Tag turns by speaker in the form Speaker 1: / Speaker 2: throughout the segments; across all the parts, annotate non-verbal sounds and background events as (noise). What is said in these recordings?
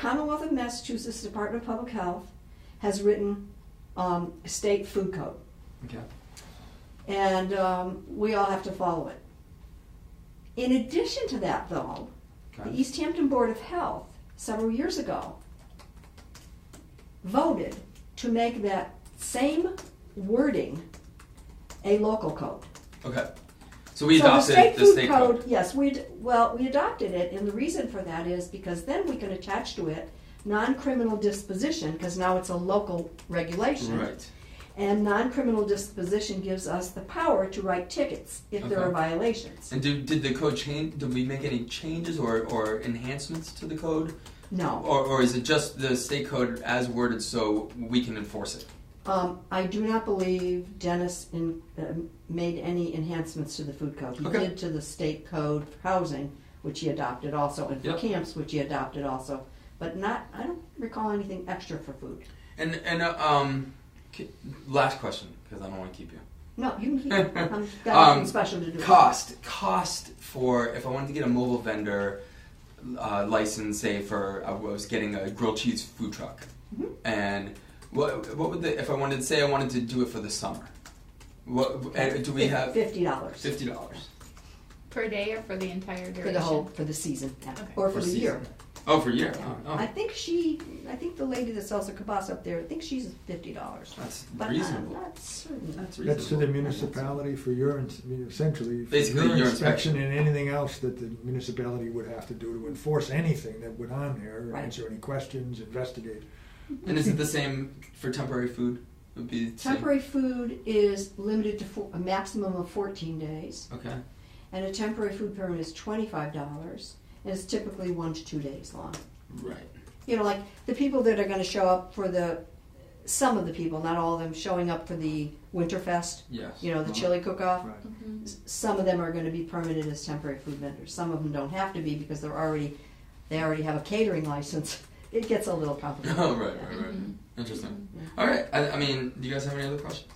Speaker 1: Commonwealth of Massachusetts Department of Public Health has written um, state food code,
Speaker 2: Okay.
Speaker 1: and um, we all have to follow it. In addition to that, though, the
Speaker 2: Okay.
Speaker 1: East Hampton Board of Health several years ago voted to make that same wording a local code.
Speaker 2: Okay. So we
Speaker 1: so the
Speaker 2: adopted
Speaker 1: state
Speaker 2: the
Speaker 1: food
Speaker 2: state
Speaker 1: code,
Speaker 2: code.
Speaker 1: Yes, we ad- well we adopted it, and the reason for that is because then we can attach to it non-criminal disposition because now it's a local regulation,
Speaker 2: Right.
Speaker 1: and non-criminal disposition gives us the power to write tickets if there
Speaker 2: Okay.
Speaker 1: are violations.
Speaker 2: And did, did the code change? Did we make any changes or, or enhancements to the code?
Speaker 1: No,
Speaker 2: Or, or is it just the state code as worded so we can enforce it?
Speaker 1: um, I do not believe Dennis in, um made any enhancements to the food code. He
Speaker 2: Okay.
Speaker 1: did to the state code for housing, which he adopted also, and for
Speaker 2: Yep.
Speaker 1: camps, which he adopted also, but not. I don't recall anything extra for food.
Speaker 2: And, and uh, um, k- last question, because I don't want to keep you.
Speaker 1: No, you can
Speaker 2: (laughs)
Speaker 1: keep it. I've got
Speaker 2: Um,
Speaker 1: nothing special to do.
Speaker 2: Cost, cost for if I wanted to get a mobile vendor uh, license, say for I was getting a grilled cheese food truck,
Speaker 1: Mhm.
Speaker 2: and what what would the if I wanted say I wanted to do it for the summer, what and do we have
Speaker 1: fifty dollars
Speaker 2: fifty dollars?
Speaker 3: Per day or for the entire duration?
Speaker 1: for the whole for the season yeah.
Speaker 3: Okay.
Speaker 1: or for, the
Speaker 2: season?
Speaker 1: year?
Speaker 2: Oh, for a year.
Speaker 1: Yeah.
Speaker 2: Oh, oh.
Speaker 1: I think she, I think the lady that sells the kebabs up there, I think she's fifty dollars.
Speaker 2: that's
Speaker 1: But
Speaker 2: reasonable.
Speaker 1: I'm not certain.
Speaker 2: that's
Speaker 4: That's to
Speaker 2: reasonable.
Speaker 4: the municipality for your, ins- I mean, essentially, for
Speaker 2: Basically,
Speaker 4: your
Speaker 2: your
Speaker 4: inspection and anything else that the municipality would have to do to enforce anything that went on there,
Speaker 1: Right.
Speaker 4: answer any questions, investigate.
Speaker 2: and is it the same for temporary food? It would be the same.
Speaker 1: Temporary food is limited to four, a maximum of fourteen days,
Speaker 2: Okay.
Speaker 1: and a temporary food permit is twenty-five dollars, and it's typically one to two days long.
Speaker 2: Right.
Speaker 1: you know, like the people that are going to show up for the, some of the people, not all of them, showing up for the Winterfest,
Speaker 2: Yes.
Speaker 1: you know, the
Speaker 2: Uh-huh.
Speaker 1: chili cook-off.
Speaker 4: Right.
Speaker 3: Mhm.
Speaker 1: S- Some of them are going to be permitted as temporary food vendors. Some of them don't have to be because they're already, they already have a catering license. (laughs) It gets a little complicated.
Speaker 2: Oh, (laughs) (laughs) right,
Speaker 1: Yeah. Mm-hmm.
Speaker 2: right, right.
Speaker 3: Mhm.
Speaker 2: Interesting.
Speaker 1: Yeah.
Speaker 2: All right. I, I mean, do you guys have any other questions?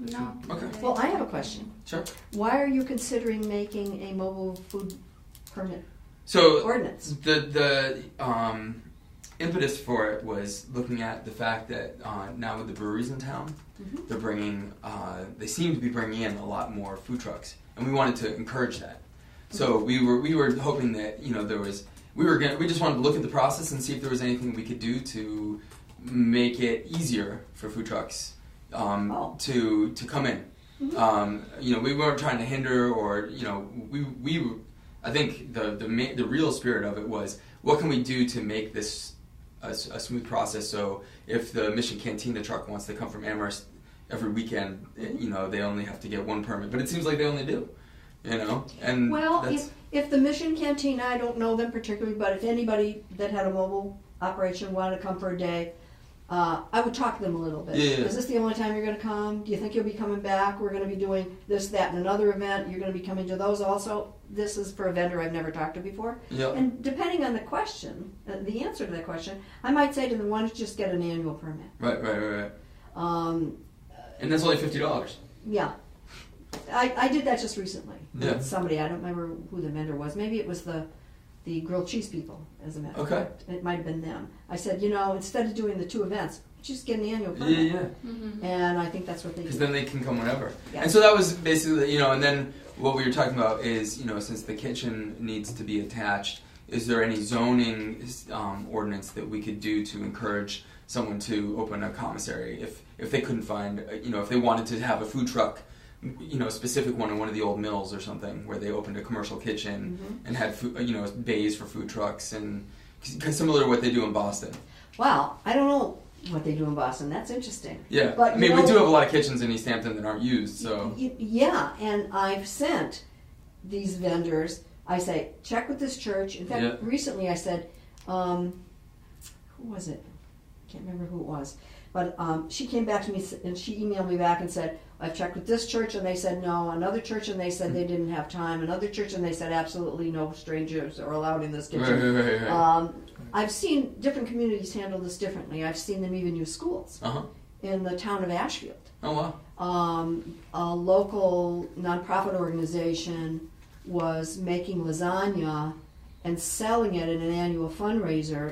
Speaker 3: No.
Speaker 2: Okay.
Speaker 1: Well, I have a question.
Speaker 2: Sure.
Speaker 1: Why are you considering making a mobile food permit
Speaker 2: So
Speaker 1: ordinance?
Speaker 2: The the um, impetus for it was looking at the fact that uh, now with the breweries in town,
Speaker 1: Mhm.
Speaker 2: they're bringing uh, they seem to be bringing in a lot more food trucks, and we wanted to encourage that. So we were we were hoping that you know there was we were gonna, we just wanted to look at the process and see if there was anything we could do to make it easier for food trucks um,
Speaker 1: Oh.
Speaker 2: to to come in.
Speaker 1: Mhm.
Speaker 2: Um, you know, we weren't trying to hinder or you know we we I think the the ma- the real spirit of it was what can we do to make this a, s- a smooth process. So if the Mission Cantina truck wants to come from Amherst every weekend, eh, you know they only have to get one permit, but it seems like they only do. You know, and
Speaker 1: Well,
Speaker 2: that's,
Speaker 1: if, if the Mission Cantina, I don't know them particularly, but if anybody that had a mobile operation wanted to come for a day, uh, I would talk to them a little bit.
Speaker 2: Yeah, yeah.
Speaker 1: Is this the only time you're going to come? Do you think you'll be coming back? We're going to be doing this, that, and another event. You're going to be coming to those also. This is for a vendor I've never talked to before.
Speaker 2: yeah.
Speaker 1: And depending on the question, uh, the answer to that question, I might say to them, why don't you just get an annual permit?
Speaker 2: Right, right, right, right.
Speaker 1: Um,
Speaker 2: And that's only fifty dollars.
Speaker 1: yeah. I, I did that just recently.
Speaker 2: Yeah.
Speaker 1: somebody. I don't remember who the vendor was. Maybe it was the the grilled cheese people, as a matter of
Speaker 2: Okay.
Speaker 1: fact. It might have been them. I said, you know, instead of doing the two events, just get an annual
Speaker 2: Yeah,
Speaker 1: permit.
Speaker 2: yeah.
Speaker 3: Mhm.
Speaker 1: And I think that's what they
Speaker 2: Because
Speaker 1: did.
Speaker 2: then they can come whenever.
Speaker 1: Yeah.
Speaker 2: And so that was basically, you know, and then what we were talking about is, you know, since the kitchen needs to be attached, is there any zoning um, ordinance that we could do to encourage someone to open a commissary if if they couldn't find, uh, you know, if they wanted to have a food truck, you know, a specific one in one of the old mills or something where they opened a commercial kitchen
Speaker 1: Mhm.
Speaker 2: and had food, you know, bays for food trucks and cause similar to what they do in Boston.
Speaker 1: Wow, I don't know what they do in Boston. That's interesting.
Speaker 2: Yeah,
Speaker 1: But
Speaker 2: I mean,
Speaker 1: you
Speaker 2: we
Speaker 1: know-
Speaker 2: do have a lot of kitchens in East Hampton that aren't used, so.
Speaker 1: Y- y- yeah, and I've sent these vendors. I say check with this church. In fact,
Speaker 2: Yeah.
Speaker 1: recently I said, um, who was it? Can't remember who it was, but um, she came back to me s- and she emailed me back and said I've checked with this church and they said no. Another church and they said they didn't have time. Another church and they said absolutely no strangers are allowed in this
Speaker 2: Right,
Speaker 1: kitchen.
Speaker 2: right, right, right.
Speaker 1: Um, I've seen different communities handle this differently. I've seen them even use schools
Speaker 2: Uh huh.
Speaker 1: in the town of Ashfield
Speaker 2: Oh wow.
Speaker 1: um, a local nonprofit organization was making lasagna and selling it at an annual fundraiser